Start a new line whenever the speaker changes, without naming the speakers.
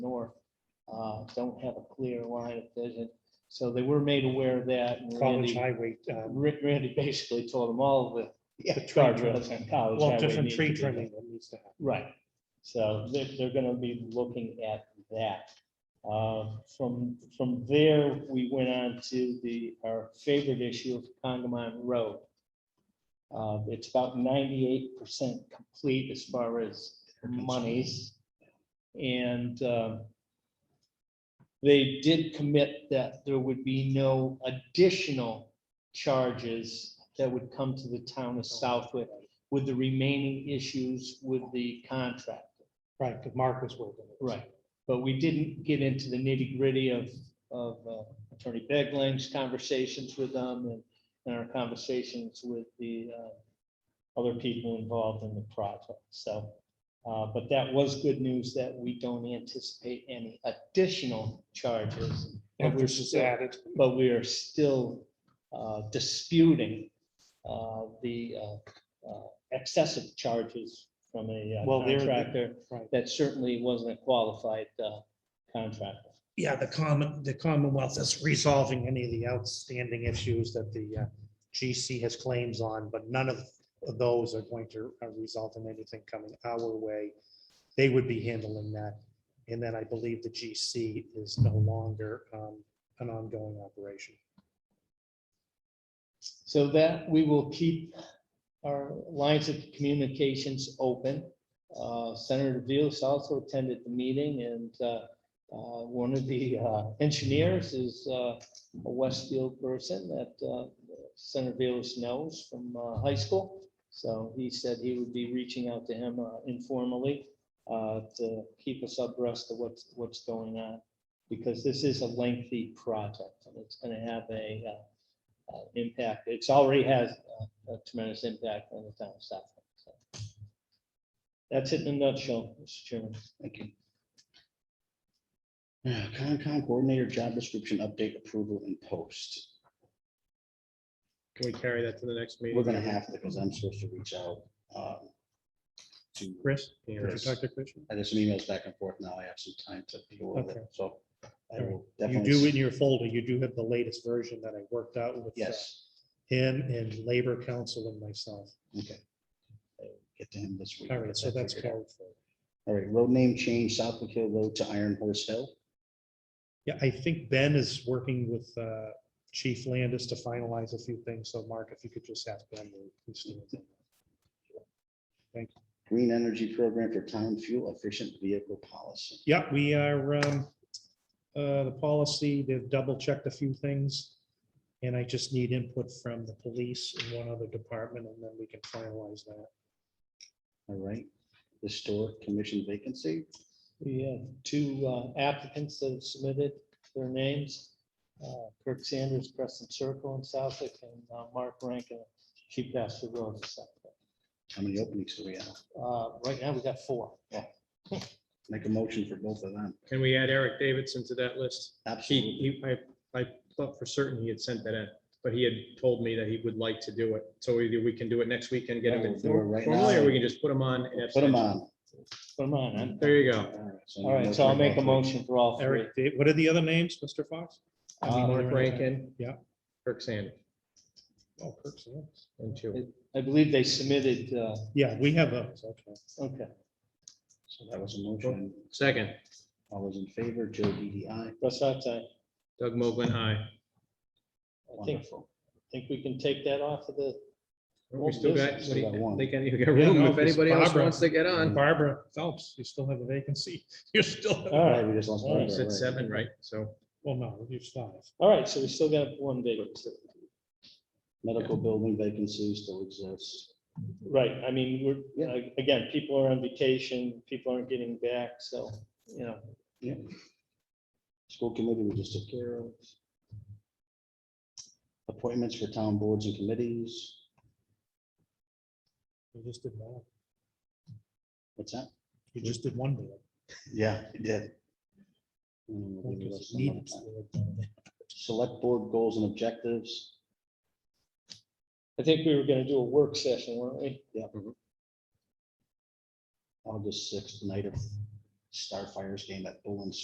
uh, don't have a clear line of vision. So they were made aware of that. and Randy-
College Highway, um,
Rick Randy basically told them all the.
Yeah,
the
tree
car
trimming.
drivers and college
well,
highway
different
needs
tree
to be done.
trimming that needs to happen.
Right, so they're, they're gonna be looking at that. Uh, From, from there, we went on to the, our favorite issue of Congamon Road. Uh, It's about ninety-eight percent complete as far as monies. And uh, they did commit that there would be no additional charges that would come to the town of Southwick with the remaining issues with the contractor.
Right, because Mark was working. with us.
But we didn't get into the nitty gritty of, of uh, Attorney Begling's conversations with them and, and our conversations with the uh, other people involved in the project. So, uh, but that was good news that we don't anticipate any additional charges. But we're
Emphasis
still,
added.
but we are still uh, disputing uh, the uh, uh, excessive charges from a uh,
Well, they're-
contractor
Right.
that certainly wasn't a qualified uh, contractor.
Yeah, the common, the Commonwealth is resolving any of the outstanding issues that the uh, GC has claims on, but none of of those are going to uh, result in anything coming our way. They would be handling that. And then I believe the GC is no longer um, an ongoing operation.
So that, we will keep our lines of communications open. Uh, Senator Vils also attended the meeting and uh, uh, one of the uh, engineers is uh, a Westfield person that uh, Senator Vils knows from uh, high school. So he said he would be reaching out to him uh, informally uh, to keep us abreast of what's, what's going on. Because this is a lengthy project and it's going to have a uh, uh, impact. It's already has uh, a tremendous impact on the town of Southwick. so. That's it in a nutshell, Mr. Chairman.
Thank you. Uh, Concom coordinator job description update approval and post.
Can we carry that to the next meeting?
We're gonna have to, because I'm supposed to reach out. um, To,
Chris, can you
Chris.
talk to Chris?
I there's some emails back and forth now. I have some time to deal with
Okay.
it, so. I will
You
definitely.
do
s-
in your folder, you do have the latest version that I worked out with uh,
Yes,
him and Labor Council and myself.
okay. I'll Get to him this week.
All right, so
Get that
that's
figured out.
carried forward.
All right, road name change, Southwick Hill Road to Iron Horse Hill.
Yeah, I think Ben is working with uh, Chief Landis to finalize a few things. So Mark, if you could just have Ben. to- to stand on that.
Green Energy Program for Town Fuel Efficient Vehicle Policy.
Yeah, we are, um, uh, the policy, they've double checked a few things. And I just need input from the police and one other department, and then we can finalize that.
All right, historic commission vacancy.
We have two uh, applicants that have submitted their names. uh, Kirk Sanders, Crescent Circle in Southwick, and uh, Mark Rankin, Chief Pastor Road in Southwick.
How many openings do we have?
Uh, Right now, we got four.
Make a motion for both of them.
Can we add Eric Davidson to that list?
Absolutely.
He, he, I, I thought for certain he had sent that in, but he had told me that he would like to do it. So either we can do it next week and get him
We'll
in
do it right now.
formally, or we can just put him on. and
Put them on.
Put them on. I'm-
There you go.
All right, so I'll make a motion for all three.
Eric, Dave- what are the other names, Mr. Fox? I mean,
Uh,
what are
Mark
the-
Rankin.
Yeah.
Kirk Sanders,
Oh, Kirk's the others.
and two.
I believe they submitted, uh,
Yeah, we have those. Okay.
okay,
So that was a motion.
Second,
All those in favor, Joe DDI.
Russ, I
Doug Moglen, aye.
I think,
Wonderful.
think we can take that off of the
We still got, what do
Still got
you
one.
think? Any- you got room
no,
if
because
anybody else
Barbara-
wants to get on?
Barbara Phelps, you still have a vacancy. You're still,
Oh.
All
Right,
right,
we just lost.
All right,
It's
Barbara,
at
right.
seven, right? So
well, no, you're five.
all right, so we still got one vacancy.
Medical building vacancy still exists.
Right, I mean, we're, a- again, people are on vacation, people aren't getting back, so, you know,
School committee, we just took care of. Appointments for town boards and committees.
You just did one.
What's that?
You just did one bill.
Yeah, it did. Mm, we'll do that some other time. Select board goals and objectives.
I think we were gonna do a work session, weren't we?
August sixth, night of Starfire's game at Bullen